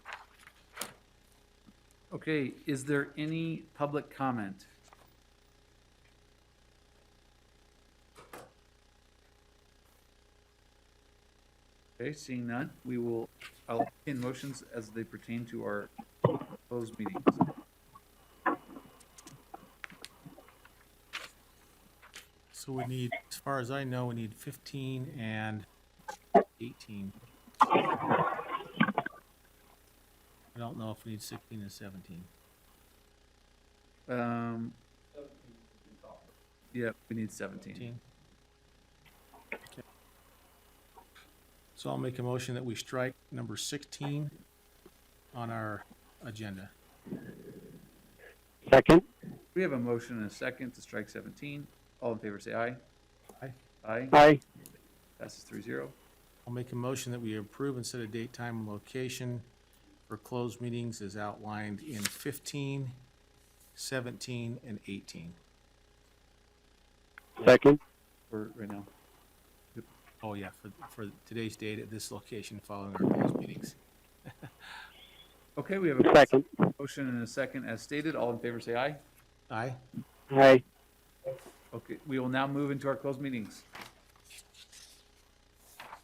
Okay, is there any public comment? Okay, seeing none, we will, I'll in motions as they pertain to our closed meetings. So we need, as far as I know, we need fifteen and eighteen. I don't know if we need sixteen and seventeen. Um, yeah, we need seventeen. 18? Okay. So I'll make a motion that we strike number sixteen on our agenda. Second? We have a motion and a second to strike seventeen. All in favor, say aye. Aye. Aye, Aye. passes three zero. I'll make a motion that we approve and set a date, time, and location for closed meetings as outlined in fifteen, seventeen, and eighteen. Second? for right now. Oh, yeah, for, for today's date at this location following our closed meetings. Okay, we have a Second? motion and a second as stated. All in favor, say aye. Aye? Aye. Okay, we will now move into our closed meetings.